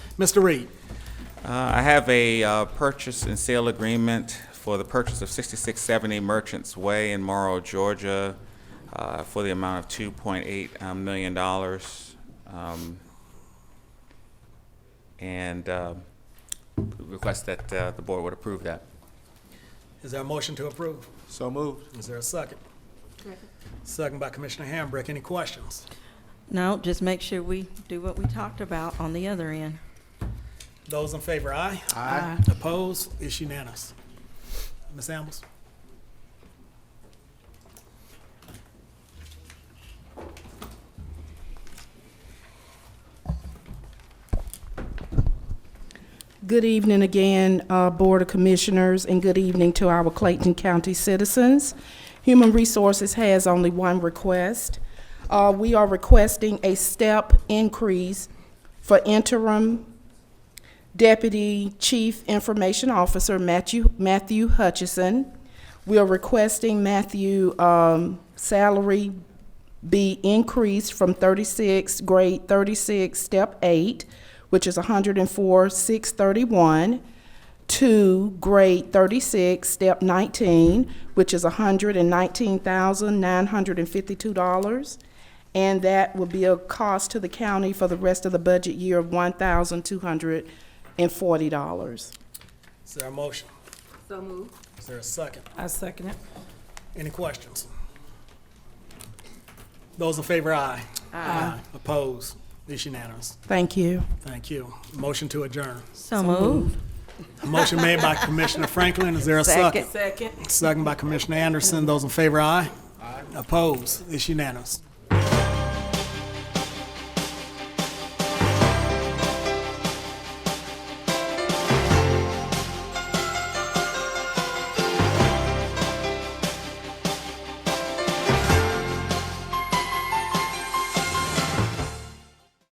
Mr. Reed, Uh, I have a uh, purchase and sale agreement for the purchase of 6670 Merchants Way in Morrow, Georgia, uh, for the amount of $2.8 um, million. dollars. Um, And uh, request that uh, the board would approve that. is there a motion to approve? So moved. Is there a second? Second by Commissioner Hambrick. Any questions? No, just make sure we do what we talked about on the other end. Those in favor, aye. Aye. Opposed? It's unanimous. Ms. Ambles? Good evening again, uh, Board of Commissioners, and good evening to our Clayton County citizens. Human Resources has only one request. Uh, We are requesting a step increase for interim Deputy Chief Information Officer Matthew Matthew Hutchison. We are requesting Matthew um, salary be increased from 36, grade 36, step 8, which is 104,631, to grade 36, step 19, which is $119,952. And that will be a cost to the county for the rest of the budget year of $1,240. Is there a motion? So moved. Is there a second? I second it. Any questions? Those in favor, aye. Aye. Opposed? It's unanimous. Thank you. Thank you. Motion to adjourn. So moved. A motion made by Commissioner Franklin. Is there a second? Second. Second by Commissioner Anderson. Those in favor, aye. Aye. Opposed? It's unanimous.